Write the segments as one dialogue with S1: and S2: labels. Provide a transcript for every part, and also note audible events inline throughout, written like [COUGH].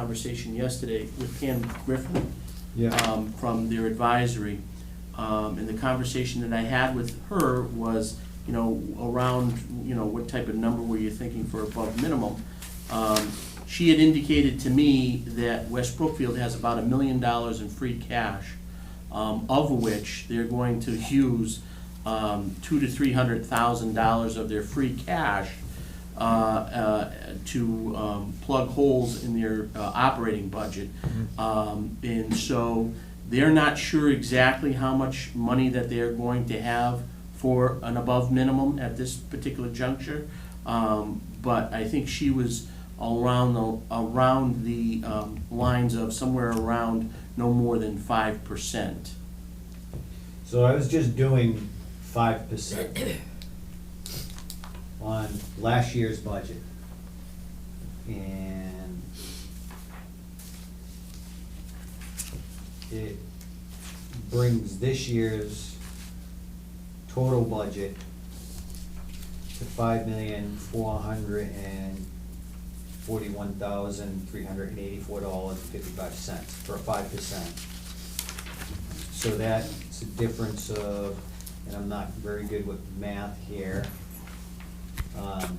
S1: conversation yesterday with Pam Griffin
S2: Yeah,
S1: um, from their advisory. Um, And the conversation that I had with her was, you know, around, you know, what type of number were you thinking for above minimum? Um, She had indicated to me that West Brookfield has about a million dollars in free cash, um, of which they're going to use um, two to three hundred thousand dollars of their free cash uh, uh, to um, plug holes in their uh, operating budget. Um, And so they're not sure exactly how much money that they're going to have for an above minimum at this particular juncture. Um, But I think she was around the, around the um, lines of somewhere around no more than five percent.
S2: so I was just doing five percent on last year's budget. And it brings this year's total budget to five million, four hundred and forty-one thousand, three hundred and eighty-four dollars and fifty-five cents for five percent. So that's a difference of, and I'm not very good with math here. Um,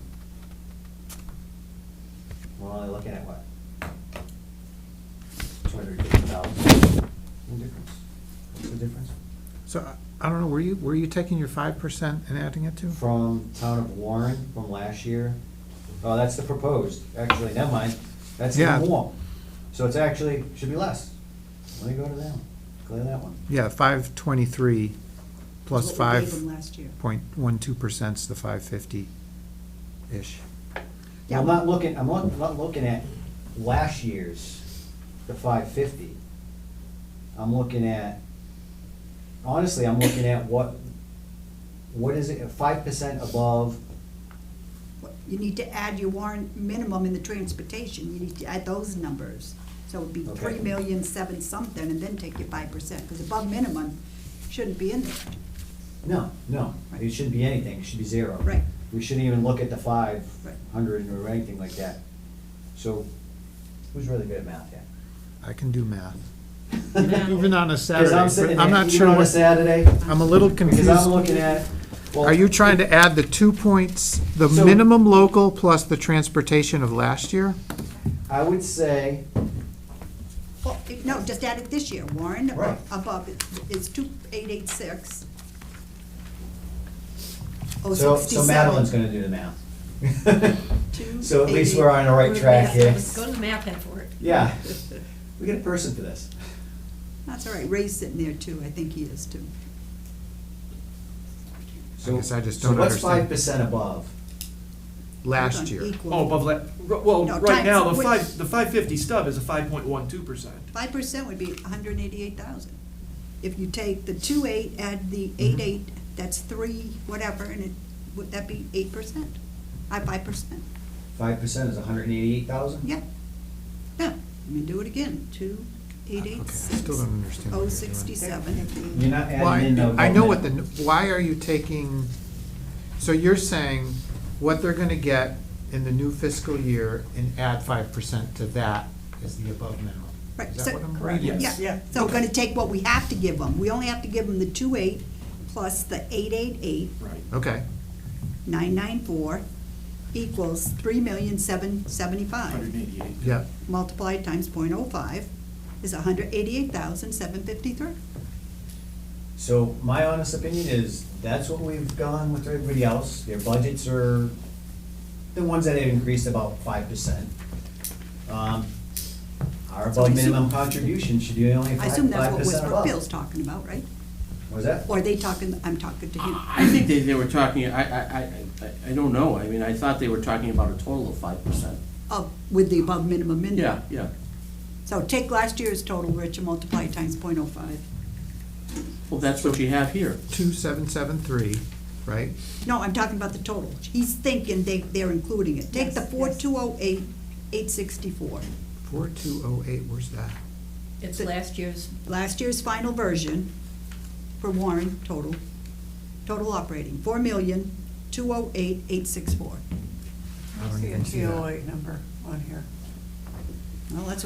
S2: We're only looking at what? Two hundred fifty thousand. No difference. What's the difference?
S3: So, I- I don't know, were you, were you taking your five percent and adding it to?
S2: From town of Warren from last year. Oh, that's the proposed. Actually, never mind. That's
S3: Yeah.
S2: even more. So it's actually, should be less. Let me go to that one. Clear that one.
S3: Yeah, five twenty-three plus
S4: What we gave them
S3: five
S4: last year.
S3: point one two percent's the five fifty-ish.
S2: I'm
S4: Yeah.
S2: not looking, I'm not, I'm not looking at last year's, the five fifty. I'm looking at, honestly, I'm looking at what, what is it, five percent above,
S4: What- You need to add your warrant minimum in the transportation, you need to add those numbers. So it'd be
S2: Okay.
S4: three million seven something, and then take your five percent, because above minimum shouldn't be in there.
S2: no, no, it shouldn't be anything, it should be zero.
S4: Right.
S2: We shouldn't even look at the five
S4: Right.
S2: hundred or anything like that. So, who's really good at math here?
S3: I can do math. Even on a
S2: Because
S3: Saturday,
S2: I'm sitting
S3: but I'm
S2: there,
S3: not
S2: even
S3: sure
S2: on a
S3: what,
S2: Saturday,
S3: I'm a little
S2: because
S3: confused.
S2: I'm looking at, well.
S3: Are you trying to add the two points, the
S2: So-
S3: minimum local plus the transportation of last year?
S2: I would say,
S4: Well, it- no, just add it this year, Warren
S2: Right.
S4: above, it- it's two eight eight six. Oh,
S2: So, so Madeline's
S4: 67.
S2: gonna do the math. [LAUGHS]
S4: Two,
S2: So at least
S4: eight,
S2: we're on the right track here.
S5: Go to the map head for it.
S2: Yeah, we get a person for this.
S4: That's all right, Ray's sitting there too, I think he is too.
S2: So
S3: guess I just don't
S2: So what's
S3: understand.
S2: five percent above?
S3: Last
S4: Hold on,
S3: year.
S4: Equal.
S6: Oh, above that, well,
S4: No,
S6: right now,
S4: times
S6: the
S4: which-
S6: five, the five fifty stub is a five point one two percent.
S4: Five percent would be hundred and eighty-eight thousand. If you take the two eight, add the
S3: Mm-hmm.
S4: eight eight, that's three, whatever, and it, would that be eight percent? I, five percent,
S2: Five percent is hundred and eighty-eight thousand?
S4: yeah. Yeah, let me do it again, two, eight
S3: Okay, I
S4: eight, six,
S3: still don't understand what
S4: oh,
S3: you're doing.
S4: sixty-seven.
S2: You're not adding
S3: Why,
S2: in the.
S3: I know what the, why are you taking, so you're saying what they're gonna get in the new fiscal year and add five percent to that is the above minimum?
S4: Right,
S3: Is that
S4: so-
S3: what I'm
S6: Correct.
S3: reading?
S6: Yes.
S4: Yeah, yeah, so we're gonna take what we have to give them, we only have to give them the two eight plus the eight eight eight,
S6: Right.
S3: Okay,
S4: nine nine four equals three million seven seventy-five.
S6: Hundred and eighty-eight.
S3: yeah,
S4: multiplied times point oh five is a hundred eighty-eight thousand seven fifty-three.
S2: So my honest opinion is, that's what we've gone with everybody else, their budgets are the ones that have increased about five percent. Um, Our
S4: So
S2: above
S4: I assume-
S2: minimum contribution should be only
S4: I
S2: five,
S4: assume that's
S2: five
S4: what
S2: percent
S4: Westbrook
S2: above.
S4: Bill's talking about, right?
S2: Was that?
S4: Or are they talking, I'm talking to him.
S1: I think they, they were talking, I, I, I, I- I don't know, I mean, I thought they were talking about a total of five percent.
S4: Oh, with the above minimum in there.
S1: Yeah, yeah,
S4: So take last year's total, Rich, and multiply it times point oh five.
S1: well, that's what you have here.
S3: two seven seven three, right?
S4: No, I'm talking about the total. He's thinking they, they're including it. Take the
S5: Yes,
S4: four
S5: yes.
S4: two oh eight, eight sixty-four.
S3: Four two oh eight, where's that?
S5: It's last year's,
S4: last year's final version for Warren total, total operating, four million, two oh eight, eight six four.
S3: I don't even see that.
S4: Well, that's what